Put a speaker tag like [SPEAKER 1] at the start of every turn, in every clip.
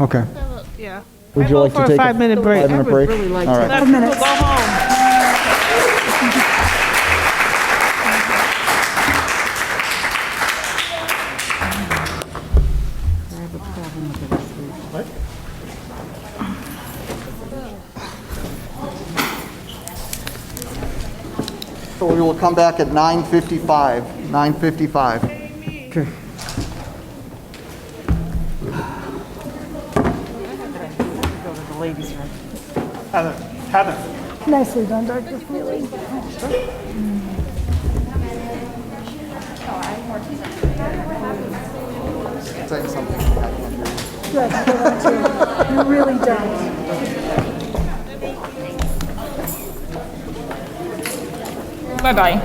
[SPEAKER 1] Okay.
[SPEAKER 2] Yeah.
[SPEAKER 1] Would
[SPEAKER 2] I
[SPEAKER 1] you
[SPEAKER 2] vote
[SPEAKER 1] like to
[SPEAKER 2] for a
[SPEAKER 1] take a
[SPEAKER 2] five-minute break?
[SPEAKER 1] five-minute
[SPEAKER 2] I would
[SPEAKER 1] break?
[SPEAKER 2] really like
[SPEAKER 1] All
[SPEAKER 2] to.
[SPEAKER 1] right.
[SPEAKER 2] Let people go home.
[SPEAKER 3] So we will come back at 9:55, 9:55.
[SPEAKER 4] Heather, Heather.
[SPEAKER 5] Nicely done, Dr. Foley.
[SPEAKER 3] Say something.
[SPEAKER 5] Good, good, too. You really done.
[SPEAKER 6] Bye-bye.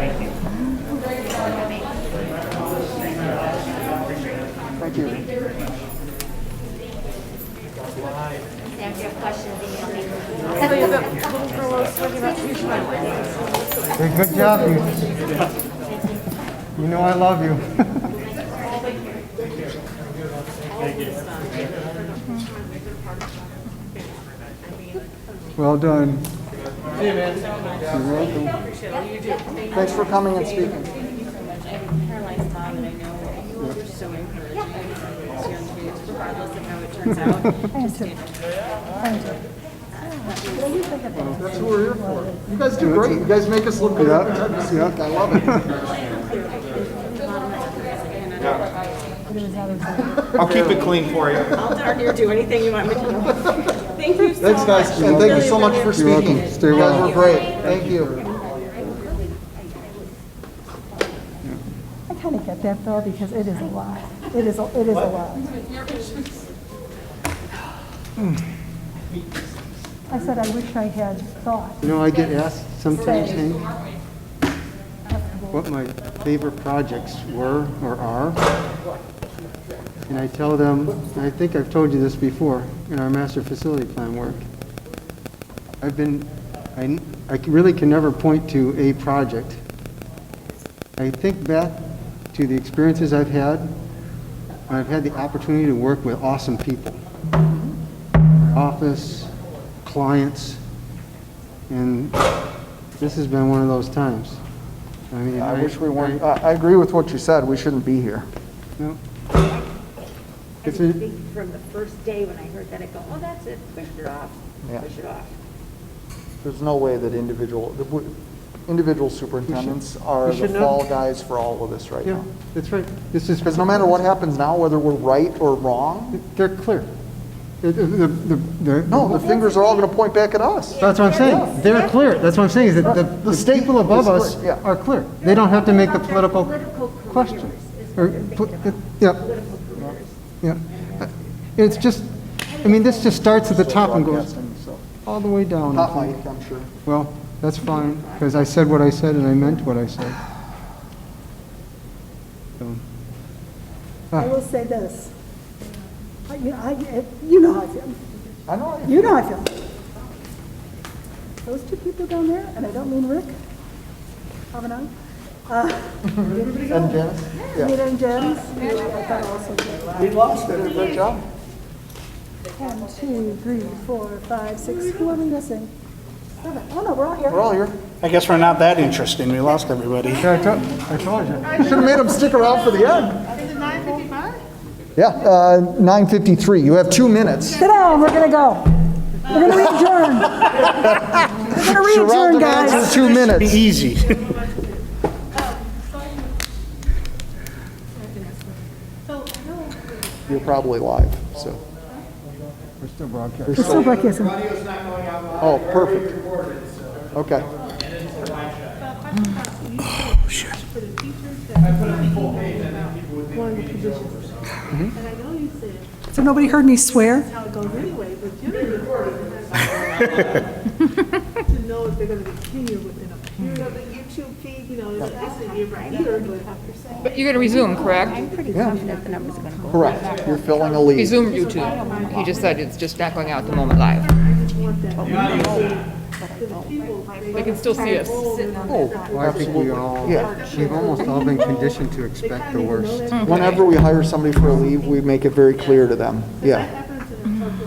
[SPEAKER 3] Thank you.
[SPEAKER 7] If you have questions, email me.
[SPEAKER 1] Hey, good job, you. You know I love you. Well done.
[SPEAKER 3] Thanks for coming and speaking.
[SPEAKER 8] Caroline's mom, and I know you were so encouraging these young kids, regardless of how it turns out. Just get
[SPEAKER 3] That's who we're here for. You guys do great. You guys make us look good every time you speak. I love it.
[SPEAKER 4] I'll keep it clean for you.
[SPEAKER 8] all darn near do anything you want me to do. Thank you so much.
[SPEAKER 3] That's nice. And thank you so much for
[SPEAKER 1] You're welcome.
[SPEAKER 3] speaking.
[SPEAKER 1] Stay
[SPEAKER 3] You guys
[SPEAKER 1] well.
[SPEAKER 3] were great. Thank you.
[SPEAKER 5] I kind of get that though, because it is a lot. It is, a- it is a lot. I said, I wish I had thought.
[SPEAKER 1] You know, I get asked sometimes, Hank, what my favorite projects were or are. And I tell them, and I think I've told you this before, in our master facility plan work. I've been, I, I can- really can never point to a project. I think back to the experiences I've had, when I've had the opportunity to work with awesome people. Office, clients, and this has been one of those times. I mean,
[SPEAKER 3] I wish we weren't,
[SPEAKER 1] I-
[SPEAKER 3] I, I agree with what you said. We shouldn't be here.
[SPEAKER 1] no.
[SPEAKER 9] I
[SPEAKER 1] It's a-
[SPEAKER 9] didn't think from the first day when I heard that, I go, oh, that's it, push it off,
[SPEAKER 3] Yeah.
[SPEAKER 9] push it off.
[SPEAKER 3] There's no way that individual, that we- individual superintendents are
[SPEAKER 1] we
[SPEAKER 3] the
[SPEAKER 1] should know.
[SPEAKER 3] fall guys for all of this right
[SPEAKER 1] Yeah,
[SPEAKER 3] now.
[SPEAKER 1] that's right. This is,
[SPEAKER 3] Because no matter what happens now, whether we're right or wrong,
[SPEAKER 1] they're clear. The- the- the- the-
[SPEAKER 3] no, the fingers are all going to point back at us.
[SPEAKER 1] That's what I'm saying. They're clear. That's what I'm saying, is that the, the people above
[SPEAKER 3] is
[SPEAKER 1] us
[SPEAKER 3] clear, yeah.
[SPEAKER 1] are clear. They don't have to make the
[SPEAKER 9] About their
[SPEAKER 1] political
[SPEAKER 9] political
[SPEAKER 1] question.
[SPEAKER 9] careers is
[SPEAKER 1] Or
[SPEAKER 9] what they're
[SPEAKER 1] pl-
[SPEAKER 9] thinking about.
[SPEAKER 1] Yeah,
[SPEAKER 9] Political careers.
[SPEAKER 1] yeah. It's just, I mean, this just starts at the top and goes
[SPEAKER 3] Broadcasting, so.
[SPEAKER 1] all the way down.
[SPEAKER 3] Not Mike, I'm sure.
[SPEAKER 1] Well, that's fine, because I said what I said and I meant what I said. So,
[SPEAKER 5] I will say this. I- You know, I- you know how I feel.
[SPEAKER 3] I know. I-
[SPEAKER 5] You know how I feel. Those two people down there, and I don't mean Rick, Kavanaugh, uh,
[SPEAKER 3] And Janice? Yeah.
[SPEAKER 5] Anita and Janice, who I thought also did a lot.
[SPEAKER 3] We lost it. Good job.
[SPEAKER 5] One, two, three, four, five, six, who are we missing? Seven. Oh, no, we're all here.
[SPEAKER 3] We're all here.
[SPEAKER 4] I guess we're not that interesting. We lost everybody.
[SPEAKER 1] Yeah, I told, I told you.
[SPEAKER 3] You should have made them stick around for the end. Is it 9:55? Yeah, uh, 9:53. You have two minutes.
[SPEAKER 5] Sit down, we're gonna go. We're gonna re-adjourn. We're gonna
[SPEAKER 3] Surround
[SPEAKER 5] re-adjourn,
[SPEAKER 3] the man
[SPEAKER 5] guys.
[SPEAKER 3] for two
[SPEAKER 4] Be
[SPEAKER 3] minutes.
[SPEAKER 4] easy.
[SPEAKER 3] You're probably live, so.
[SPEAKER 1] We're still broadcasting.
[SPEAKER 5] We're still broadcasting.
[SPEAKER 3] Oh, perfect. Okay.
[SPEAKER 5] So nobody heard me swear?
[SPEAKER 8] how it goes anyway, but you don't To know if they're gonna be here within a period. So the YouTube feed, you know, it's actually you're right here, but after saying.
[SPEAKER 6] But you're going to resume, correct?
[SPEAKER 9] I'm pretty confident the numbers are gonna go.
[SPEAKER 3] Correct. You're filling a lead.
[SPEAKER 6] Resume YouTube. He just said it's just not going out the moment live. They can still see us.
[SPEAKER 3] Oh,
[SPEAKER 1] Well, I think we all,
[SPEAKER 3] Yeah.
[SPEAKER 1] we've almost all been conditioned to expect the worst.
[SPEAKER 3] Whenever we hire somebody for a leave, we make it very clear to them. Yeah.